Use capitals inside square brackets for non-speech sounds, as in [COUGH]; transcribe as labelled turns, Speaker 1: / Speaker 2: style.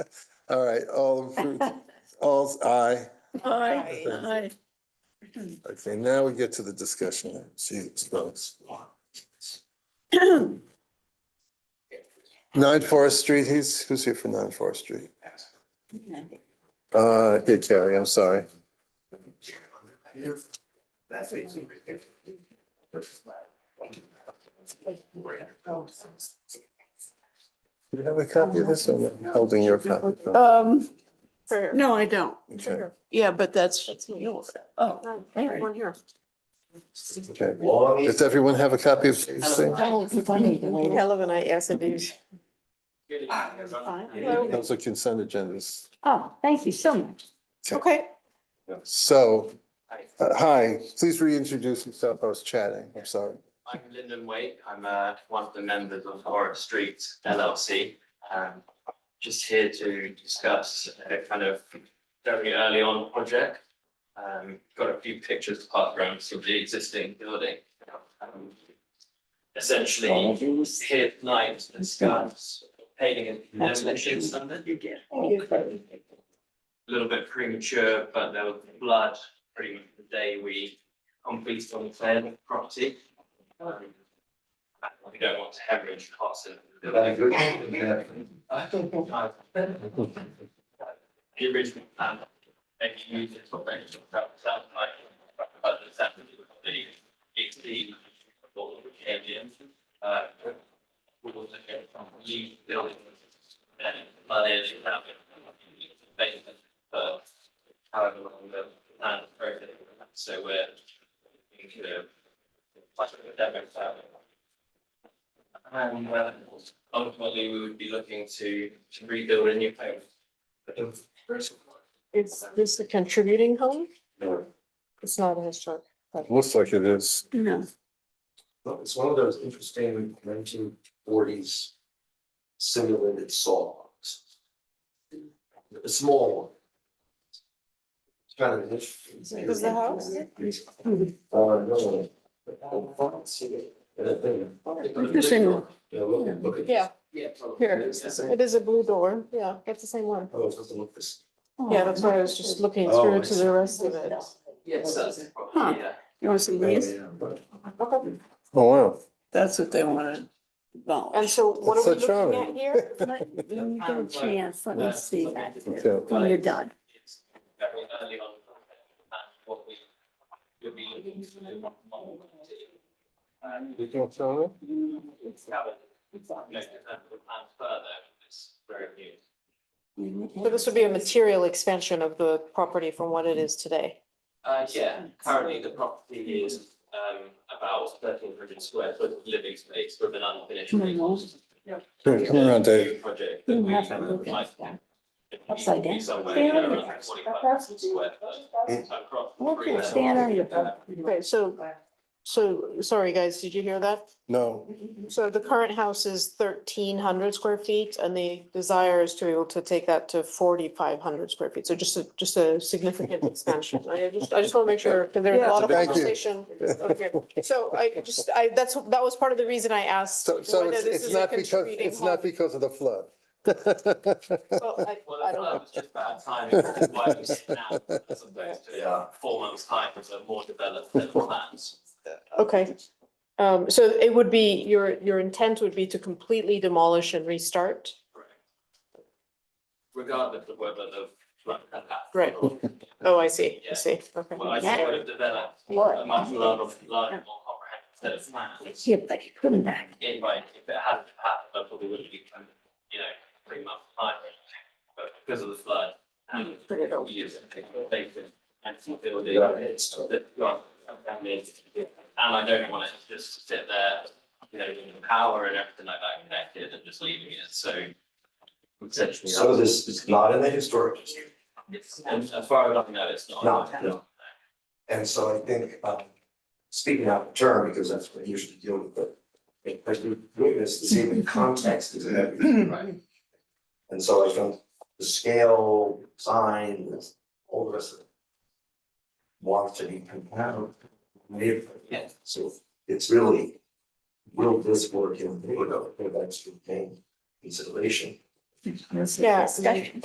Speaker 1: All right, all, approved. all's aye.
Speaker 2: Aye,
Speaker 1: Aye.
Speaker 2: aye.
Speaker 1: Okay, now we get to the discussion. Jesus folks. Nine Forest Street, he's, who's here for Nine Forest Street? Uh, yeah, Carrie, I'm sorry. Do you have a copy of this? I'm holding your copy.
Speaker 2: Um,
Speaker 3: For,
Speaker 2: no, I don't.
Speaker 1: Okay,
Speaker 2: Yeah, but that's,
Speaker 3: That's me.
Speaker 2: yours. oh,
Speaker 3: no,
Speaker 2: all right.
Speaker 3: one here.
Speaker 1: okay. Does everyone have a copy of this thing?
Speaker 3: Hell of a night, yes, it is.
Speaker 1: Those are consent agendas.
Speaker 4: Oh, thank you so much.
Speaker 3: Okay.
Speaker 1: So, uh, hi, please reintroduce yourself. I was chatting. I'm sorry.
Speaker 5: I'm Lyndon Wake. I'm uh, one of the members of Forest Street LLC. Um, Just here to discuss a kind of very early on project. Um, Got a few pictures passed around of the existing building. Um, Essentially, here tonight to discuss painting and demolition standard. A little bit premature, but there was blood pretty much the day we completed on the plan property. We don't want to hemorrhage costs in. the building. The original plan, maybe you did sort of mention that it sounds like, but it's actually the, it's the, what we came in, uh, we will take it from the building. And money is now. Basement, uh, however long the plan is broken. so we're. we could, uh, plus the demo file. And uh, ultimately, we would be looking to to rebuild a new home.
Speaker 3: Is this a contributing home? It's not a historic.
Speaker 1: Looks like it is.
Speaker 2: No,
Speaker 6: Well, It's one of those interesting nineteen forties simulated saws. A small one. It's kind of an interesting.
Speaker 3: Is the house?
Speaker 6: Uh, no. And I think-
Speaker 2: Interesting one.
Speaker 6: Yeah, look, look at.
Speaker 3: Yeah, Here,
Speaker 6: It is the same.
Speaker 3: it is a blue door. Yeah, it's the same one.
Speaker 6: Oh, it doesn't look this.
Speaker 3: Yeah, that's why I was just looking
Speaker 6: Oh,
Speaker 3: through
Speaker 6: I
Speaker 3: to
Speaker 6: see.
Speaker 3: the rest of it.
Speaker 5: Yes, that's the
Speaker 2: Huh.
Speaker 5: property, yeah.
Speaker 2: you want some of these?
Speaker 6: Yeah, but-
Speaker 1: Oh, wow.
Speaker 2: That's what they wanted. No.
Speaker 3: And so what
Speaker 1: That's
Speaker 3: are we
Speaker 1: so charming.
Speaker 3: looking at here?
Speaker 2: When
Speaker 5: you get a chance,
Speaker 2: let
Speaker 5: me see that.
Speaker 1: Okay.
Speaker 5: When you're
Speaker 2: done.
Speaker 5: It's very early on. And what we would be looking to do. And
Speaker 1: You can show it?
Speaker 5: it's covered. No, it's not the plan further, it's very new.
Speaker 3: [LAUGHS] So this would be a material expansion of the property from what it is today.
Speaker 5: Uh, yeah, currently the property is, um, about thirteen hundred square foot of living space with an unfinished. basement.
Speaker 1: Here, Come around, Dave.
Speaker 5: New Project that we
Speaker 4: have a look at
Speaker 5: might-
Speaker 4: that.
Speaker 5: it needs
Speaker 4: Upside
Speaker 5: to be
Speaker 4: down.
Speaker 5: somewhere
Speaker 4: Stand on
Speaker 5: around
Speaker 4: your first.
Speaker 5: 45 square foot. So across the three levels.
Speaker 4: Stand on your.
Speaker 5: Uh,
Speaker 3: Okay, so, so, sorry, guys, did you hear that?
Speaker 1: No,
Speaker 3: So the current house is thirteen hundred square feet and the desire is to be able to take that to forty-five hundred square feet. So just a, just a
Speaker 1: [LAUGHS]
Speaker 3: significant expansion. I just, I just want to make sure, because there's a lot of
Speaker 1: Thank you.
Speaker 3: conversation.
Speaker 1: [LAUGHS]
Speaker 3: Okay. So I just, I, that's, that was part of the reason I asked.
Speaker 1: so, so
Speaker 3: whether
Speaker 1: it's,
Speaker 3: this
Speaker 1: it's
Speaker 3: is a
Speaker 1: not because,
Speaker 3: contributing
Speaker 1: it's not
Speaker 3: home.
Speaker 1: because of the flood.
Speaker 3: Well, I-
Speaker 5: Well,
Speaker 3: I
Speaker 5: I
Speaker 3: don't know.
Speaker 5: was just
Speaker 1: [LAUGHS]
Speaker 5: bad timing, which is why we sit now, as opposed
Speaker 6: Yeah.
Speaker 5: to uh, four months' time, with a more developed set of plans.
Speaker 3: Okay. Um, so it would be, your, your intent would be to completely demolish and restart?
Speaker 5: Correct. Regardless of whether the flood had happened.
Speaker 3: Right.
Speaker 5: or-
Speaker 3: Oh, I see, I
Speaker 5: Yeah.
Speaker 3: see. Okay.
Speaker 5: Well, I still would have developed a
Speaker 4: What?
Speaker 5: much larger, larger, more comprehensive set of plans.
Speaker 4: Yeah, but you couldn't back.
Speaker 5: If I, if it hadn't happened, I probably would have been, you know, three months' time. But because of the flood and years of degradation and building, it's, that got damaged. And I don't want it to just sit there, you know, with the power and everything like that connected and just leaving it, so. Essentially.
Speaker 6: So this is not in the historic district.
Speaker 5: It's, and as far as I know, it's not.
Speaker 6: No, no. And so I think, um, speaking out of turn, because that's what I usually deal with, but as we witness, the same context is everything, right? And so I think the scale, sign, all the rest of it wants to be compatible. with
Speaker 5: Yeah.
Speaker 6: So it's really, will this work in, you know, with extra pain consideration?
Speaker 4: This is
Speaker 3: Yeah, I mean-
Speaker 4: discussion.